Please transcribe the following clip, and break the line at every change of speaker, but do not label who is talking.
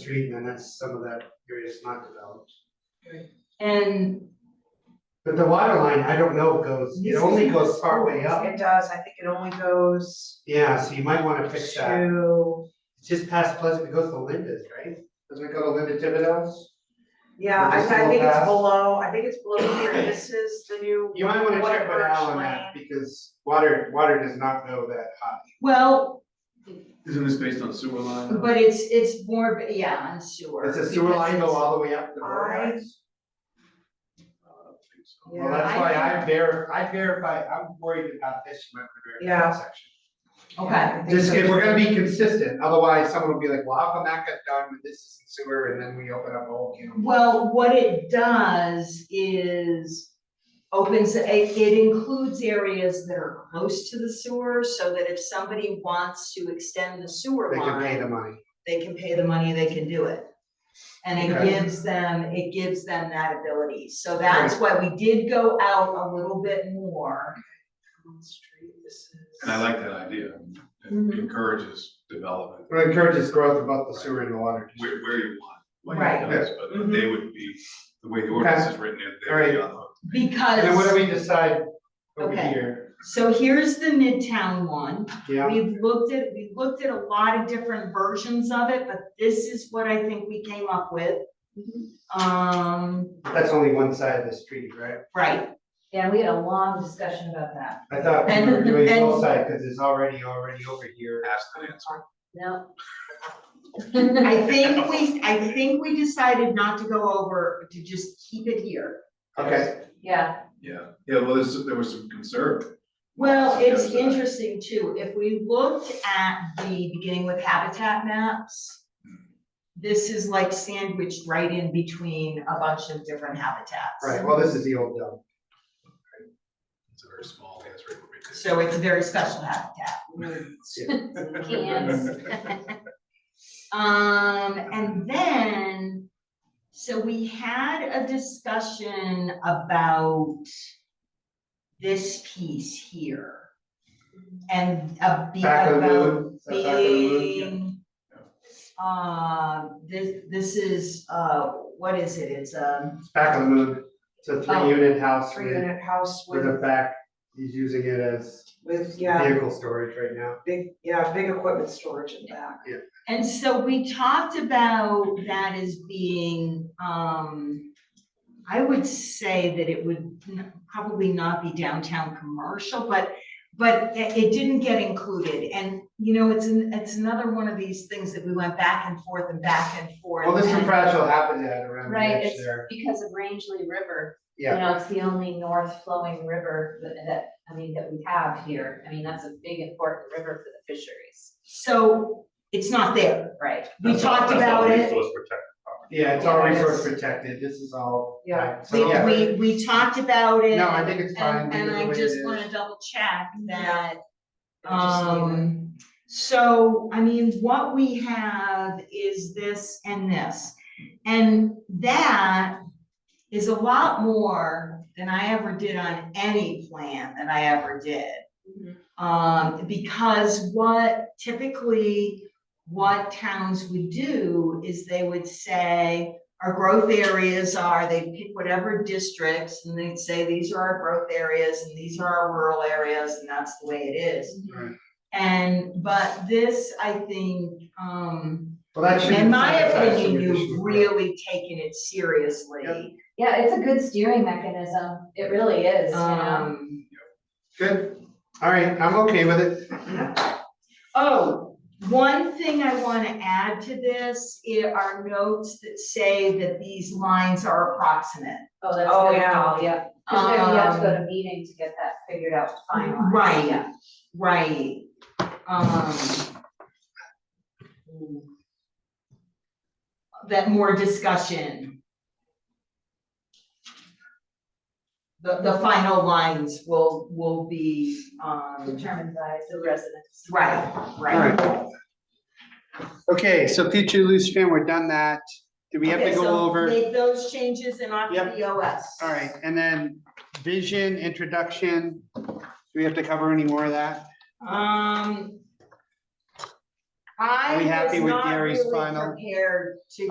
Street, and then that's some of that area is not developed.
And
But the water line, I don't know, goes, it only goes partway up,
It does, I think it only goes
yeah, so you might wanna fix that,
to,
it's just past Pleasant, it goes to Linda's, right? Doesn't it go to Linda Thibodeau's?
yeah, I
Just
I think
go
it's
past.
below, I think it's below here, this is the new.
You might wanna check with
Waterworks
Al on that, because water, water does not go that high.
well,
Isn't this based on sewer line?
but it's it's more, yeah, on sewer.
Does the sewer
because
line go
it's-
all the way up to the
I-
boardwalks?
Yeah.
Well, that's
I
why
think-
I verify, I verify, I'm worried about this, you might wanna verify
Yeah.
that section.
Okay,
I think
Just,
so.
if we're gonna be consistent, otherwise someone will be like, well, how come that got done with this is sewer, and then we open up a whole can of
well, what it does is opens, it it includes areas that are close to the sewer, so that if somebody wants to extend the sewer
They
line.
can pay the money.
they can pay the money, they can do it. And it
Okay.
gives them, it gives them that ability, so that's why we did go out a little bit more.
Elm Street, this is-
And I like that idea, it
Mhm.
encourages development,
It encourages growth of both the sewer and the water. district.
where, where you want, like
Right.
it does, but but they would be, the way the ordinance is written, they would be on the hook.
And then what do
Because,
we decide over
Okay.
here?
so here's the Midtown one,
Yeah,
we've looked at, we looked at a lot of different versions of it, but this is what I think we came up with.
Mm-hmm.
Um,
that's only one side of the street, right?
right,
Yeah, we had a long discussion about that.
I thought we were
And-
doing
and-
both sides, cause it's already, already over here.
Ask the answer.
No.
I think we, I think we decided not to go over, to just keep it here.
Okay,
Yeah,
Yeah, yeah, well, there's, there was some concern,
Well,
So
it's
there's
uh,
that.
interesting too, if we looked at the beginning with habitat maps. This is like sandwiched right in between a bunch of different habitats.
right, well, this is the old dump.
it's a very small answer.
So it's a very special habitat.
cans.
Um, and then, so we had a discussion about this piece here. And a be
Back of the
about
moon, is that back of the moon?
being. Uh, this, this is, uh, what is it, it's, um,
It's back of the moon, it's a
Oh.
three unit house
Three
with,
unit house
with
with,
a back, he's using it as
with, yeah,
vehicle storage right now.
big, yeah, big equipment storage in back.
and so we talked about that as being, um. I would say that it would n- probably not be downtown commercial, but, but it, it didn't get included, and, you know, it's, an- it's another one of these things that we went back and forth and back and forth.
Well, there's
and-
some fragile habitat around the
Right,
edge
it's-
there,
Because of Rangeley River, you
yeah,
know, it's the only north flowing river that, that, I mean, that we have here. I mean, that's a big important river for the fisheries,
So it's not there.
right?
We talked about it.
yeah, it's all resource protected, this is all.
Yeah.
so,
We,
yeah.
we, we talked about it.
No, I think it's fine,
And,
leave
and
it the
I
way it
just
is.
wanna double check that,
Yeah, just leave it.
um, so, I mean, what we have is this and this. And that is a lot more than I ever did on any plan that I ever did. Um, because what typically, what towns would do is they would say, our growth areas are, they pick whatever districts and they'd say, these are our growth areas and these are our rural areas and that's the way it is.
Right.
And, but this, I think, um,
Well, that should.
in my opinion,
issue.
you've really taken it seriously.
Yep.
Yeah, it's a good steering mechanism. It really is, you know?
Um,
Good, all right, I'm okay with it.
Oh, one thing I want to add to this i- are notes that say that these lines are approximate.
Oh, that's
Oh,
a good
yeah.
call, yeah. Cause we have to go to
Um,
meeting to get that figured out finally.
Right,
Yeah.
right. Um, That more discussion. The, the final lines will, will be, um,
Determined by the residents.
right,
All
right.
Okay, so future loose fan, we're done that, do we have to
Okay,
go
so
over?
Make those changes and off to
Yep.
the OS.
All right, and then vision, introduction, do we have to cover any more of that?
Um. I
we happy
was
with
not
Gary's
really
final?
prepared to